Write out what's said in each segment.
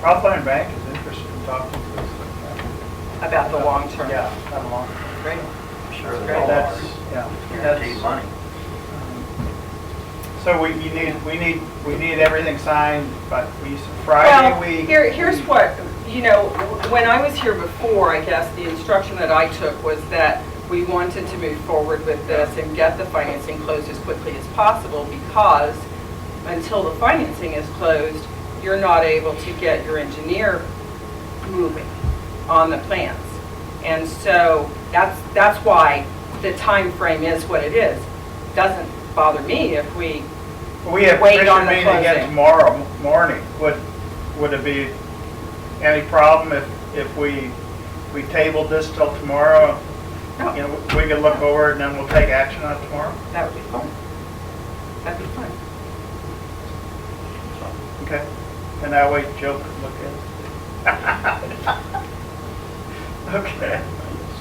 Rothline Bank is interested in talking to us. about the long term. Yeah, not a long. Great. Sure, Great, That's, that's yeah. guaranteed that's- money. So we, you need, we need, we need everything signed, but we, Well, Friday, we. here, here's what, you know, when I was here before, I guess the instruction that I took was that we wanted to move forward with this and get the financing closed as quickly as possible because until the financing is closed, you're not able to get your engineer moving on the plans. And so that's, that's why the time frame is what it is. Doesn't bother me if we We have wait commission on the meeting again closing. tomorrow morning. Would, would it be any problem if, if we, we tabled this till tomorrow? You No. know, we could look over it and then we'll take action on it tomorrow? That would be fun. That'd be fun. Okay. And that way Joe could look at it. Okay.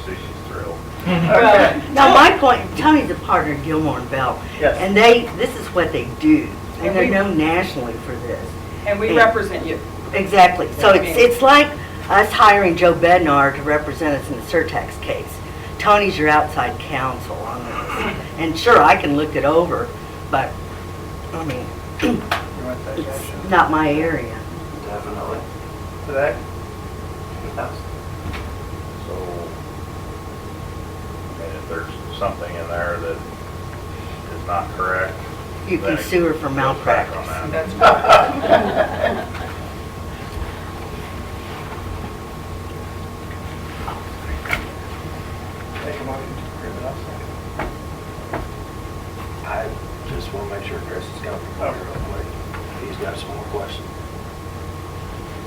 See, she's thrilled. Okay. Now, my point, Tony's a partner in Gilmore and Bell. Yes. And they, this is what they do, And and they're we- known nationally for this. And we Yeah. represent you. Exactly. So Yeah. it's, it's like us hiring Joe Bednar to represent us in the Surtax case. Tony's your outside counsel on this. And sure, I can look it over, but, I mean, You want to take action it's not my area. Definitely. to that? So, I mean, if there's something in there that is not correct. You then can it sue her for goes back on malpractice. that. Oh, That's right. Take a motion to approve it, I'll second. I just want to make sure Chris is going to prepare real quick. He's got some more questions.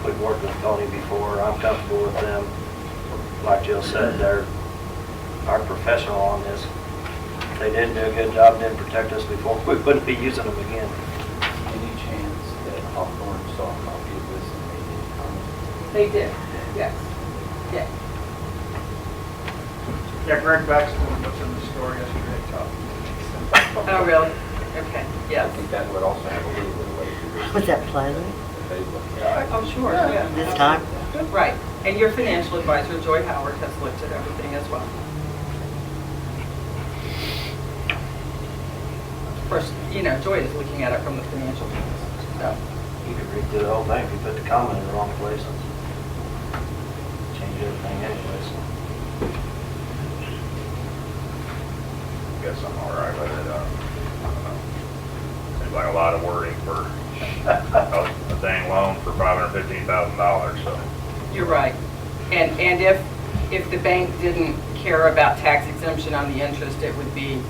We've worked with Tony before, I'm comfortable with them. Like Jill said, they're our professional on this. If They didn't do a good job, didn't protect us before, we wouldn't be using them again. Any chance that Hawthorne saw a copy of this and they didn't comment? They did, yes, yes. Yeah, Greg Baxter was in the store yesterday talking. Oh, really? Okay, I yes. think that would also have a little bit of weight to Was that pleasant it, if they looked at it. Oh, sure, yeah. this time? Right, and your financial advisor, Joy Howard, has looked at everything as well. Of course, you know, Joy is looking at it from the financial piece, so. You could read through the whole thing if you put the comment in the wrong place. Change everything anyway, so. Guess I'm all right with it. uh, I don't know. Seems like a lot of wording for a a dang loan for $515,000, so. You're right. And, and if, if the bank didn't care about tax exemption on the interest, it would be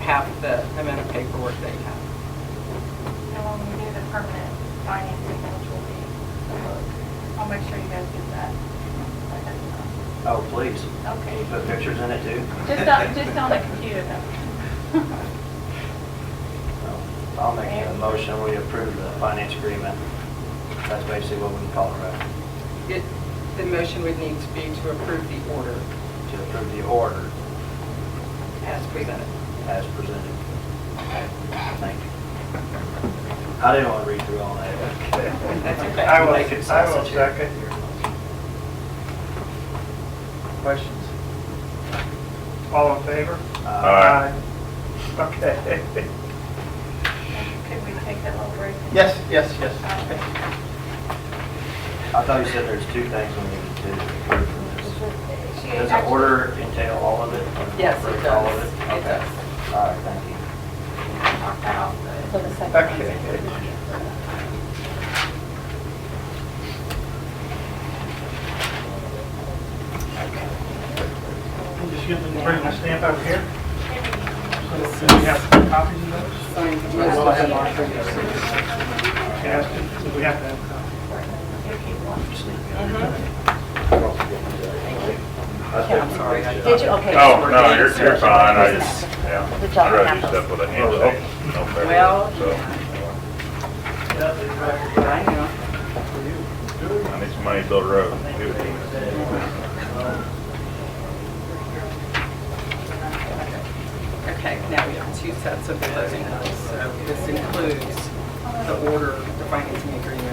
half the amount of paperwork that you have. And when we do the permanent financing, which will be, I'll make sure you guys get that. Oh, please. Can you Okay, put pictures in it too? just on, just on the computer though. So, I'll make a motion, we approve the finance agreement. That's basically what we can call it, right? It, the motion would need to be to approve the order To approve the order as presented. as presented. Thank you. I didn't want to read through all that. That's okay. I will, Like it's I will sausage. second your motion. Questions? All in favor? Uh, Uh, Aye. Aye. Okay. Could we take that little break? Yes, yes, yes. Um, I thought you said there's two things we need to approve from this. she Does the actually- order entail all of it? Yes, it Approve does. all of it? It Okay. All right, thank you. Knock that off the- Okay. I'm just going to bring my stamp over here. So do we have copies of those? Can I ask, do we have to have copies? Yeah, I'm sorry. I- Did you, okay. Oh, no, you're, you're fine, I just, yeah. Good job, I'd rather you Captain. step with a handshake. no favor, Well- so. I know. I need some money to build a road. Do it. Okay, now we have two sets of closing notes. So this includes the order, the financing agreement,